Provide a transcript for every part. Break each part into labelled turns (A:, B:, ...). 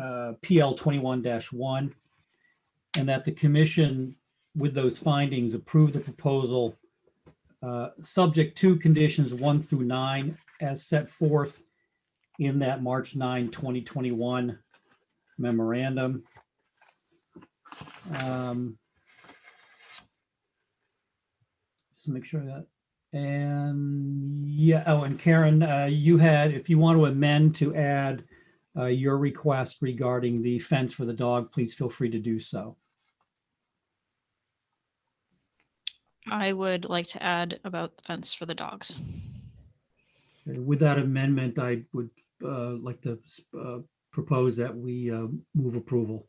A: uh, PL twenty-one one. And that the commission, with those findings, approve the proposal uh, subject to conditions one through nine as set forth in that March 9, 2021 memorandum. Um, Just make sure that, and yeah, oh, and Karen, uh, you had, if you want to amend to add uh, your request regarding the fence for the dog, please feel free to do so.
B: I would like to add about the fence for the dogs.
A: With that amendment, I would uh, like to uh, propose that we uh, move approval.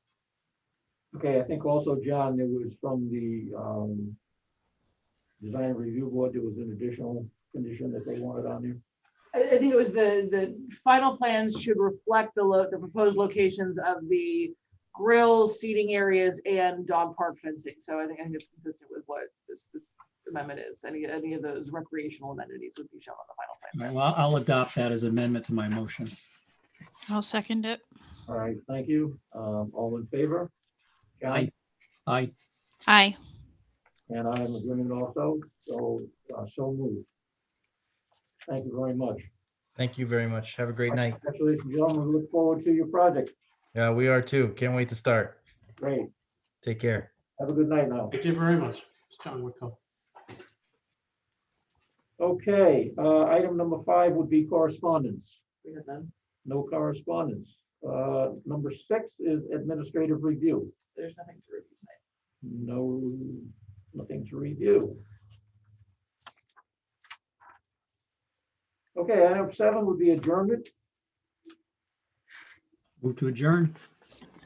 C: Okay, I think also, John, there was from the um, Design Review Board, there was an additional condition that they wanted on there.
D: I, I think it was the, the final plans should reflect the lo, the proposed locations of the grill, seating areas and dog park fencing. So I think, I think it's consistent with what this, this amendment is. Any, any of those recreational amenities would be shown on the final plan.
A: All right, Well, I'll adopt that as amendment to my motion.
B: I'll second it.
C: All right, thank you. Um, All in favor? John?
A: Aye. Aye.
B: Aye.
C: And I am agreeing also, so, uh, so moved. Thank you very much.
E: Thank you very much. Have a great night.
C: Congratulations, gentlemen. We look forward to your project.
E: Yeah, we are too. Can't wait to start.
C: Great.
E: Take care.
C: Have a good night now.
F: Thank you very much. It's John Wickham.
C: Okay, uh, item number five would be correspondence.
D: We have none.
C: No correspondence. Uh, Number six is administrative review.
D: There's nothing to review tonight.
C: No, nothing to review. Okay, item seven would be adjournment.
A: Move to adjourn.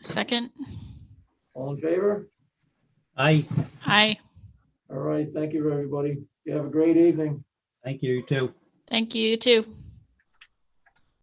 B: Second.
C: All in favor?
A: Aye.
B: Aye.
C: All right, thank you, everybody. You have a great evening.
A: Thank you, you too.
B: Thank you you too.